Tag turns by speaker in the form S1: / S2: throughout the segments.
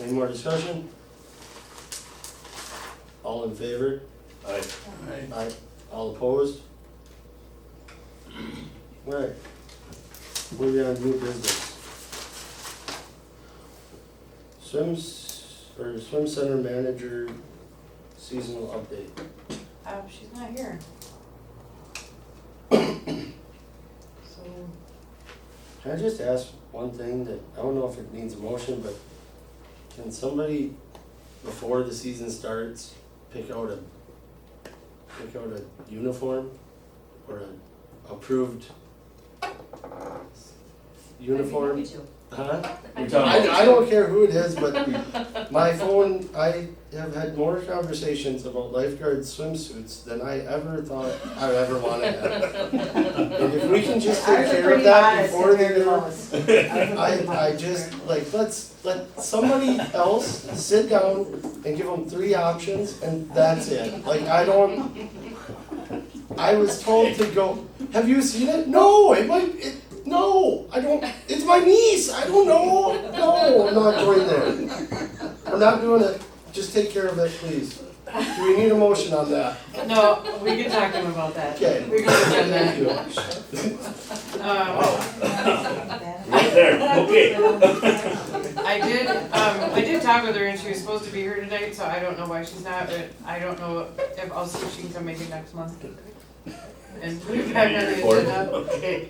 S1: Any more discussion? All in favor? Aye.
S2: Aye.
S1: Aye. All opposed? Right. Moving on to new business. Swims, or swim center manager seasonal update.
S3: Um, she's not here. So,
S1: Can I just ask one thing that, I don't know if it needs a motion, but can somebody, before the season starts, pick out a, pick out a uniform or a approved uniform? Huh?
S2: You're
S1: I,
S2: talking
S1: I don't care who it is, but my phone, I have had more conversations about lifeguard swimsuits than I ever thought I would ever wanna have. And if we can just take
S3: Ours are
S1: care of
S3: pretty
S1: that
S3: modest
S1: before the
S3: compared
S1: year.
S3: to those.
S1: I, I just, like, let's, let somebody else sit down and give them three options and that's it. Like, I don't, I was told to go, have you seen it? No, it might, it, no, I don't, it's my niece, I don't know. No, I'm not going there. I'm not doing it. Just take care of it, please. Do we need a motion on that?
S3: No, we can talk to him about that.
S1: Okay.
S3: We can look at
S1: Thank
S3: that.
S1: you.
S3: Um,
S4: Right there, okay.
S3: I did, um, I did talk with her and she was supposed to be here tonight, so I don't know why she's not, but I don't know if, I'll see if she can come maybe next month. And put it back on the
S4: Or-
S3: agenda. Okay.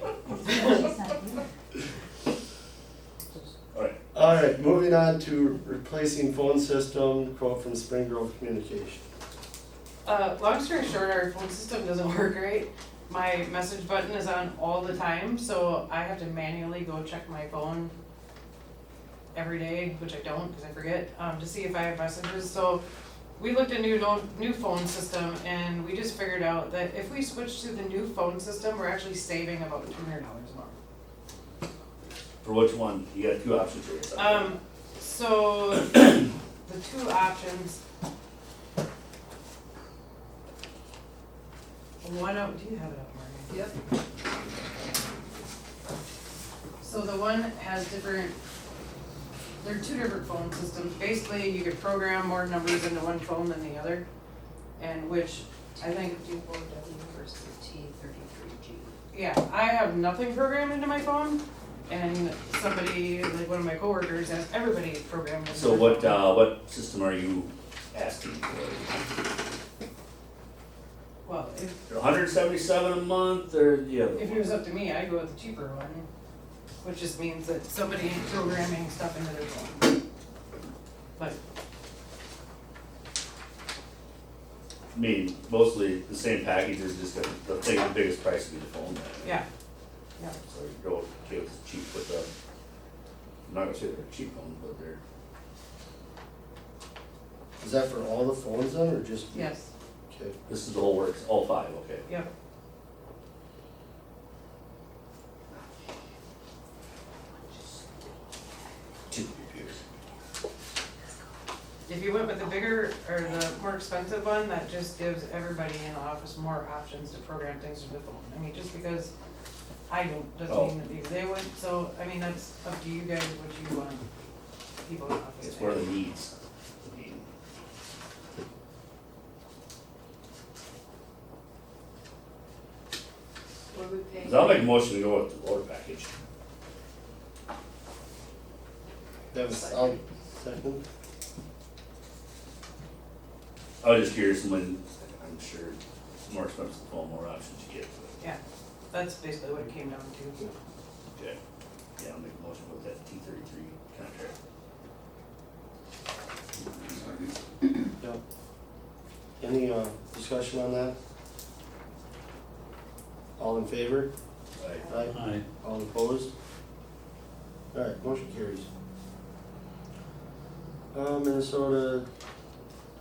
S1: All right, moving on to replacing phone system, quote from Spring Grove Communication.
S3: Uh, long story short, our phone system doesn't work right. My message button is on all the time, so I have to manually go check my phone every day, which I don't because I forget, um, to see if I have messages. So we looked at new no- new phone system and we just figured out that if we switch to the new phone system, we're actually saving about two hundred dollars a month.
S4: For which one? You got two options here. so-
S3: Um, so the two options. One of, do you have it up, Marty? Yep. So the one has different, there are two different phone systems. Basically, you could program more numbers into one phone than the other. And which I think,
S5: Fifty-four W versus T thirty-three G.
S3: yeah, I have nothing programmed into my phone. And somebody, like one of my coworkers, has everybody programmed into
S4: So
S3: their
S4: what,
S3: phone.
S4: uh, what system are you asking for?
S3: Well, if,
S4: hundred and seventy-seven a month or the other
S3: if it
S4: one?
S3: was up to me, I'd go with the cheaper one, which just means that somebody is programming stuff into their phone. But,
S4: I mean, mostly the same packages, just the, the thing, the biggest price would be the phone.
S3: yeah,
S4: So you go, okay, it's cheap with the, I'm not gonna say they're cheap ones, but they're,
S1: Is that for all the phones then, or just?
S3: yes,
S1: Okay,
S4: this is the whole works, all five, okay.
S3: yep.
S4: Two computers.
S3: If you went with the bigger or the more expensive one, that just gives everybody in the office more options to program things to the phone. I mean, just because I don't, doesn't mean that they- they would, so, I mean, that's up to you guys, what you want people in the office
S4: It's
S3: to
S4: for
S3: have.
S4: the needs. I mean,
S5: What we
S4: Cause I'll make a motion to go with the lower package.
S1: that was, I'll second.
S4: I was just curious when, I'm sure it's more expensive the phone, more options you get.
S3: That's basically what it came down to.
S4: Okay. uh, Yeah, I'll make a motion with that T thirty-three contract.
S1: Any, uh, discussion on that? All in favor?
S4: Right.
S1: Aye. All opposed? Alright, motion carries. Uh, Minnesota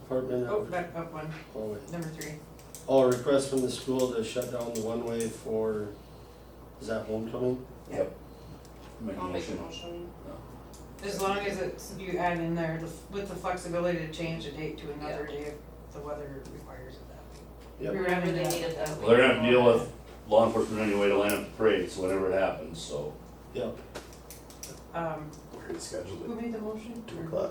S1: Department
S3: Oh,
S1: of,
S3: back up one,
S1: oh, wait.
S3: number three.
S1: Oh, request from the school to shut down the one-way for, is that homecoming?
S4: Make a
S5: I'll make a
S4: motion.
S5: motion.
S3: As long as it's, you add in there the- with the flexibility to change the date to another day if the weather requires it that
S1: Yep.
S3: way. We were
S5: Remember
S3: having
S5: they
S3: that.
S5: needed that.
S4: Well, they're gonna have to deal with law enforcement anyway to line up the parades, whenever it happens, so.
S1: Yep.
S3: Um,
S6: We're gonna schedule
S3: who made the motion?
S6: it two o'clock.